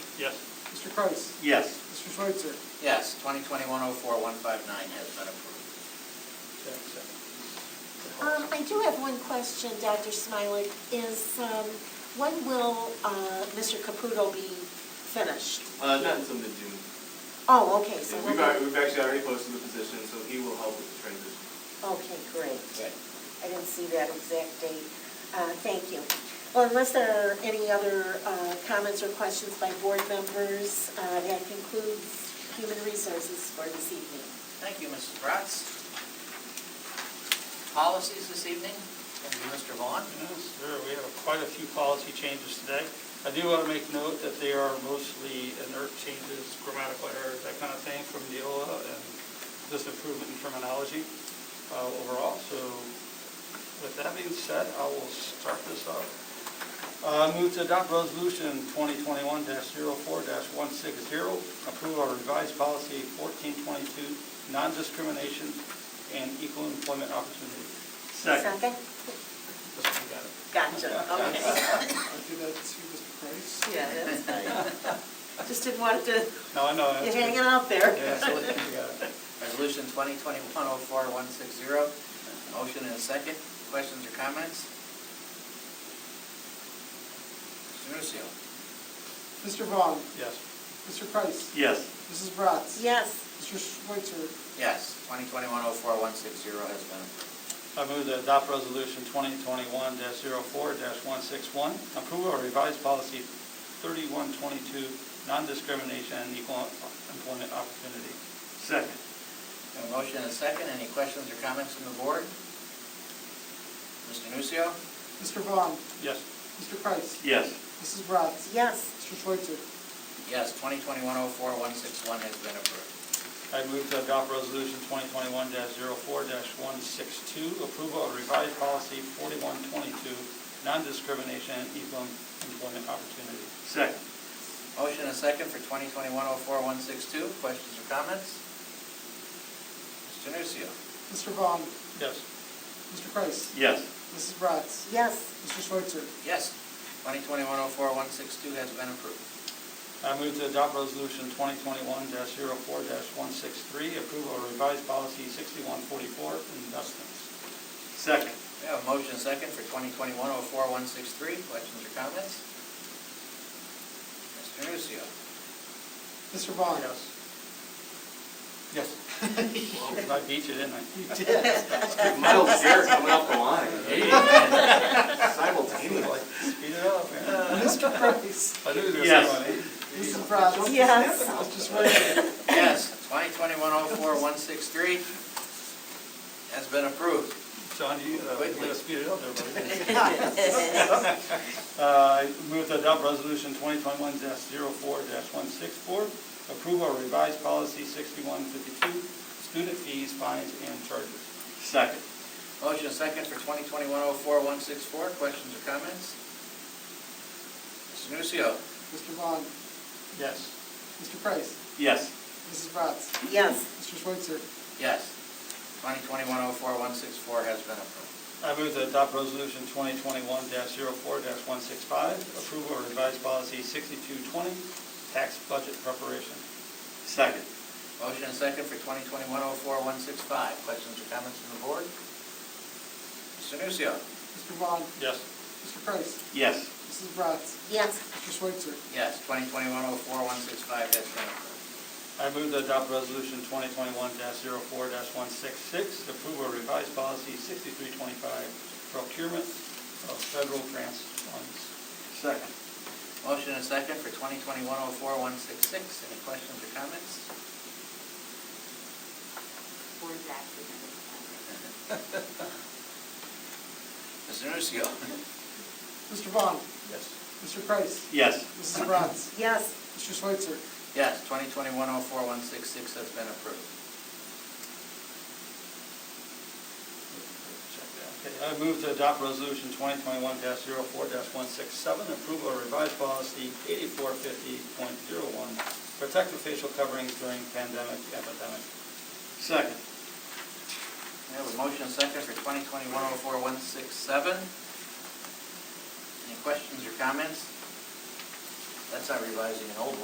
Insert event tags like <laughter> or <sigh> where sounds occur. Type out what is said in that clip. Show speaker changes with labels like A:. A: Yes.
B: Mr. Kreis.
C: Yes.
B: Mr. Schweitzer.
D: Yes, 2021-04-159 has been approved.
E: Um, I do have one question, Dr. Smiley, is, um, when will, uh, Mr. Caputo be finished?
F: Uh, not until mid-June.
E: Oh, okay, so.
F: We've, al- we've actually already posted the position, so he will help with the transition.
E: Okay, great.
D: Good.
E: I didn't see that exact date. Uh, Thank you. Well, unless there are any other uh, comments or questions by board members, uh, that concludes human resources for this evening.
D: Thank you, Mrs. Bratz. Policies this evening, and Mr. Vaughn.
A: Yes, sir, we have quite a few policy changes today. I do want to make note that they are mostly inert changes, grammatical errors, that kind of thing from Neola Uh, and just improvement in terminology uh, overall. So with that being said, I will start this off. Uh, Move to adopt resolution 2021-04-160, approve our revised policy 1422, non-discrimination and equal employment opportunity.
C: Second.
A: Just you got it.
E: Gotcha, okay.
B: I'll give that to Mr. Kreis.
E: Yeah,
B: <laughs>
E: that's fine. Just didn't want to,
A: No, I know.
E: you
A: that's
E: hanging
A: good.
E: out there.
A: Yeah, so we got it.
D: Resolution 2021-04-160, motion and a second. Questions or comments? Mr. Nucio.
B: Mr. Vaughn.
A: Yes.
B: Mr. Kreis.
C: Yes.
B: Mrs. Bratz.
E: Yes.
B: Mr. Schweitzer.
D: Yes, 2021-04-160 has been approved.
A: I move to adopt resolution 2021-04-161, approve our revised policy 3122, non-discrimination and equal employment opportunity.
C: Second.
D: A motion and a second. Any questions or comments from the board? Mr. Nucio.
B: Mr. Vaughn.
A: Yes.
B: Mr. Kreis.
C: Yes.
B: Mrs. Bratz.
E: Yes.
B: Mr. Schweitzer.
D: Yes, 2021-04-161 has been approved.
A: I move to adopt resolution 2021-04-162, approval of revised policy 4122, non-discrimination and equal employment opportunity.
C: Second.
D: Motion and second for 2021-04-162. Questions or comments? Mr. Nucio.
B: Mr. Vaughn.
A: Yes.
B: Mr. Kreis.
C: Yes.
B: Mrs. Bratz.
E: Yes.
B: Mr. Schweitzer.
D: Yes, 2021-04-162 has been approved.
A: I move to adopt resolution 2021-04-163, approval of revised policy 6144, investments.
C: Second.
D: We have a motion and second for 2021-04-163. Questions or comments? Mr. Nucio.
B: Mr. Vaughn.
A: Yes. Yes. <laughs> I beat you, didn't I?
B: <laughs> You did.
F: Miles Garrett coming off the line. Simultaneously.
A: Speed it up, man.
B: Mr. Kreis.
A: I knew you were gonna say
C: Yes.
A: one, eh?
B: Mrs. Bratz.
E: Yes.
B: Mr. Schweitzer.
D: Yes, 2021-04-163 has been approved.
A: John, you gotta, you gotta speed it up there, buddy.
E: Yes.
A: Uh, I Move to adopt resolution 2021-04-164, approval of revised policy 6152, student fees, fines, and charges.
C: Second.
D: Motion and second for 2021-04-164. Questions or comments? Mr. Nucio.
B: Mr. Vaughn.
A: Yes.
B: Mr. Kreis.
C: Yes.
B: Mrs. Bratz.
E: Yes.
B: Mr. Schweitzer.
D: Yes, 2021-04-164 has been approved.
A: I move to adopt resolution 2021-04-165, approval of revised policy 6220, tax budget preparation.
C: Second.
D: Motion and second for 2021-04-165. Questions or comments from the board? Mr. Nucio.
B: Mr. Vaughn.
A: Yes.
B: Mr. Kreis.
C: Yes.
B: Mrs. Bratz.
E: Yes.
B: Mr. Schweitzer.
D: Yes, 2021-04-165 has been approved.
A: I move to adopt resolution 2021-04-166, approval of revised policy 6325, procurement of federal grants funds.
C: Second.
D: Motion and second for 2021-04-166. Any questions or comments? Mr. Nucio.
B: Mr. Vaughn.
A: Yes.
B: Mr. Kreis.
C: Yes.
B: Mrs. Bratz.
E: Yes.
B: Mr. Schweitzer.
D: <laughs> Yes, 2021-04-166 has been approved.
A: Okay, I move to adopt resolution 2021-04-167, approval of revised policy 8450.01, protective facial coverings during pandemic epidemic.
C: Second.
D: We have a motion and second for 2021-04-167. Any questions or comments? That's not revising an old one.